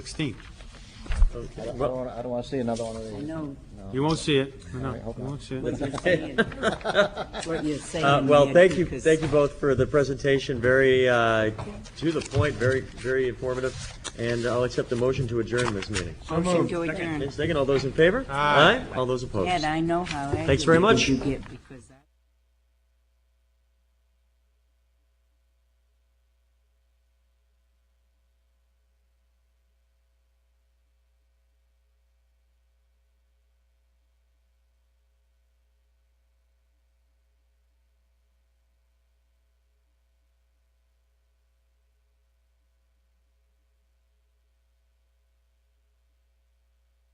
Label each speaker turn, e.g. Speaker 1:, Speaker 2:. Speaker 1: 16.
Speaker 2: I don't want, I don't want to see another one of
Speaker 3: I
Speaker 2: these.
Speaker 3: know
Speaker 1: You won't see it. No,
Speaker 2: All right,
Speaker 1: no,
Speaker 2: hold
Speaker 1: you
Speaker 2: on.
Speaker 1: won't see
Speaker 3: what
Speaker 1: it.
Speaker 3: you're saying. What you're
Speaker 4: Uh,
Speaker 3: saying.
Speaker 4: Well,
Speaker 3: Nancy,
Speaker 4: thank you,
Speaker 3: 'cause
Speaker 4: thank you both for the presentation, very uh, to the point, very, very informative, and I'll accept the motion to adjourn this meeting.
Speaker 3: Motion to adjourn.
Speaker 4: Second, all those in favor?
Speaker 1: Aye.
Speaker 4: All those opposed?
Speaker 3: Ed, I know how.
Speaker 4: Thanks very
Speaker 3: aggravated
Speaker 4: much.
Speaker 3: You get because